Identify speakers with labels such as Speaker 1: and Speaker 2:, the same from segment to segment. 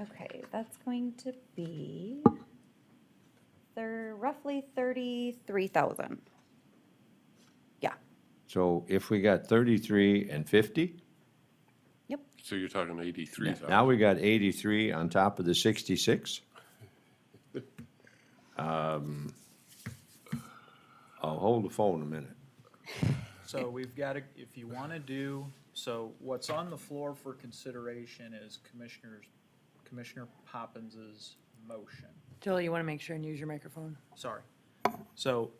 Speaker 1: Okay, that's going to be, they're roughly thirty-three thousand. Yeah,
Speaker 2: So if we got thirty-three and fifty,
Speaker 1: yep,
Speaker 3: So you're talking eighty-three thousand.
Speaker 2: now we got eighty-three on top of the sixty-six? Um, I'll hold the phone a minute.
Speaker 4: So we've got to, if you want to do, so what's on the floor for consideration is Commissioners, Commissioner Poppins's motion.
Speaker 5: Joel, you want to make sure and use your microphone?
Speaker 4: Sorry. So,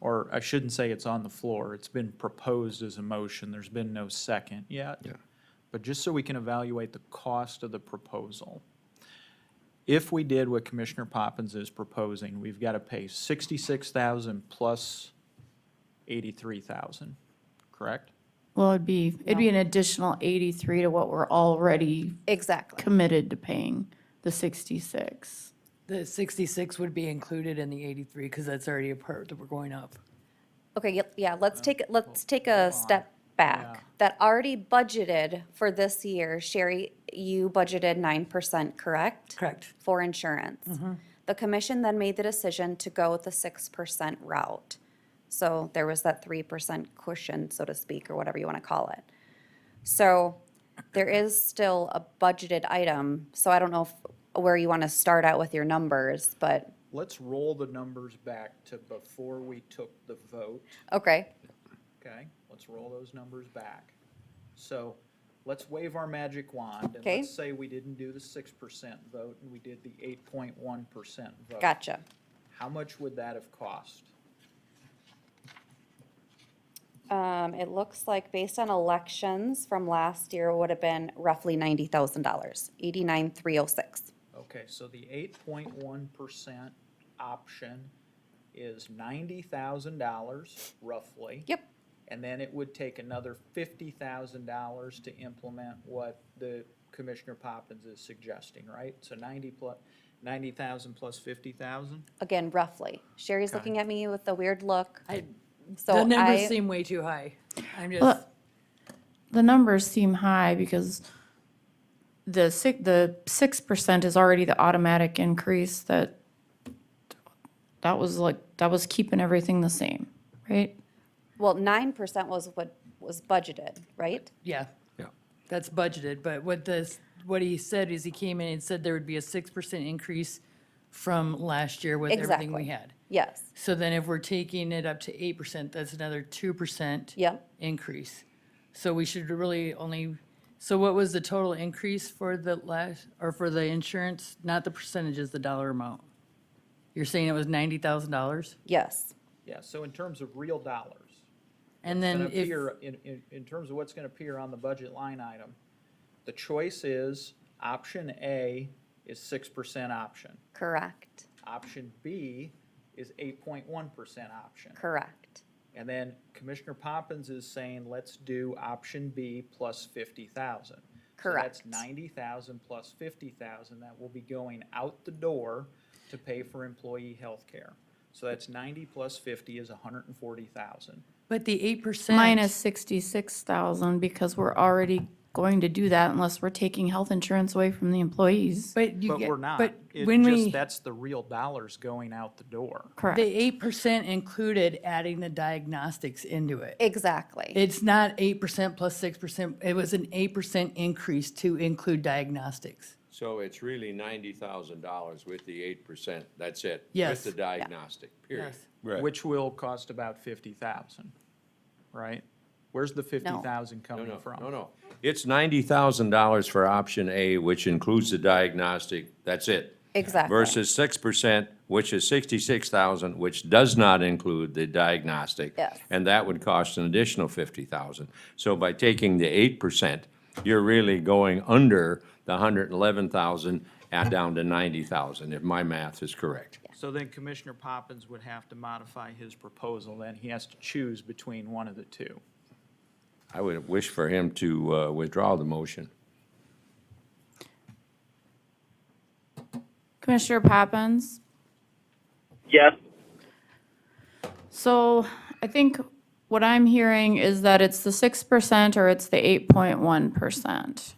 Speaker 4: or I shouldn't say it's on the floor. It's been proposed as a motion. There's been no second yet.
Speaker 2: Yeah.
Speaker 4: But just so we can evaluate the cost of the proposal, if we did what Commissioner Poppins is proposing, we've got to pay sixty-six thousand plus eighty-three thousand, correct?
Speaker 6: Well, it'd be, it'd be an additional 83 to what we're already
Speaker 1: exactly.
Speaker 6: committed to paying, the 66.
Speaker 5: The 66 would be included in the 83 because that's already a part that we're going up.
Speaker 1: Okay, yep, yeah, let's take, let's take a step back. That already budgeted for this year, Sherry, you budgeted nine percent, correct?
Speaker 5: Correct.
Speaker 1: For insurance. The commission then made the decision to go with the six percent route. So there was that three percent cushion, so to speak, or whatever you want to call it. So there is still a budgeted item, so I don't know if, where you want to start out with your numbers, but,
Speaker 4: Let's roll the numbers back to before we took the vote.
Speaker 1: okay,
Speaker 4: Okay, let's roll those numbers back. So let's wave our magic wand and
Speaker 1: Okay.
Speaker 4: let's say we didn't do the six percent vote and we did the eight point one percent vote.
Speaker 1: gotcha.
Speaker 4: How much would that have cost?
Speaker 1: Um, it looks like based on elections from last year, it would have been roughly ninety thousand dollars, eighty-nine, three oh six.
Speaker 4: Okay, so the eight point one percent option is ninety thousand dollars roughly.
Speaker 1: Yep,
Speaker 4: And then it would take another fifty thousand dollars to implement what the Commissioner Poppins is suggesting, right? So ninety plus, ninety thousand plus fifty thousand?
Speaker 1: again, roughly. Sherry's
Speaker 4: Okay.
Speaker 1: looking at me with a weird look,
Speaker 5: I,
Speaker 1: so
Speaker 5: the numbers
Speaker 1: I,
Speaker 5: seem way too high. I'm just,
Speaker 6: Well, The numbers seem high because the six, the 6% is already the automatic increase that, that was like, that was keeping everything the same, right?
Speaker 1: well, nine percent was what was budgeted, right?
Speaker 5: yeah,
Speaker 2: Yeah.
Speaker 5: that's budgeted, but what this, what he said is he came in and said there would be a 6% increase from last year with everything
Speaker 1: Exactly.
Speaker 5: we had.
Speaker 1: Yes,
Speaker 5: So then if we're taking it up to 8%, that's another 2%.
Speaker 1: yep.
Speaker 5: increase. So we should really only, so what was the total increase for the last, or for the insurance? Not the percentages, the dollar amount. You're saying it was ninety thousand dollars?
Speaker 1: Yes,
Speaker 4: Yeah, so in terms of real dollars,
Speaker 5: And
Speaker 4: gonna
Speaker 5: then if,
Speaker 4: appear, in, in, in terms of what's gonna appear on the budget line item, the choice is, option A is six percent option.
Speaker 1: correct,
Speaker 4: Option B is eight point one percent option.
Speaker 1: correct.
Speaker 4: And then Commissioner Poppins is saying, let's do option B plus fifty thousand.
Speaker 1: Correct.
Speaker 4: So that's ninety thousand plus fifty thousand that will be going out the door to pay for employee health care. So that's ninety plus fifty is hundred and forty thousand.
Speaker 5: but the eight percent.
Speaker 6: Minus 66,000 because we're already going to do that unless we're taking health insurance away from the employees.
Speaker 5: But you
Speaker 4: But
Speaker 5: get,
Speaker 4: we're not.
Speaker 5: but
Speaker 4: It
Speaker 5: when
Speaker 4: just-
Speaker 5: we, the
Speaker 4: That's the real dollars going out the door.
Speaker 6: Correct.
Speaker 5: eight percent included adding the diagnostics into it.
Speaker 1: Exactly,
Speaker 5: It's not eight percent plus six percent. It was an eight percent increase to include diagnostics.
Speaker 2: So it's really ninety thousand dollars with the eight percent, that's it?
Speaker 5: Yes. the
Speaker 2: diagnostic, period.
Speaker 5: Yes.
Speaker 4: Which will cost about fifty thousand, right? Where's the fifty thousand
Speaker 2: No,
Speaker 4: coming
Speaker 2: no,
Speaker 4: from?
Speaker 2: no, no. It's ninety thousand dollars for option A, which includes the diagnostic, that's it.
Speaker 1: exactly.
Speaker 2: Versus six percent, which is sixty-six thousand, which does not include the diagnostic.
Speaker 1: Yes.
Speaker 2: And that would cost an additional fifty thousand. So by taking the eight percent, you're really going under the hundred and eleven thousand and down to ninety thousand, if my math is correct.
Speaker 4: So then Commissioner Poppins would have to modify his proposal, then he has to choose between one of the two.
Speaker 2: I would wish for him to uh, withdraw the motion.
Speaker 6: Commissioner Poppins?
Speaker 7: Yes.
Speaker 6: So I think what I'm hearing is that it's the 6% or it's the 8.1%.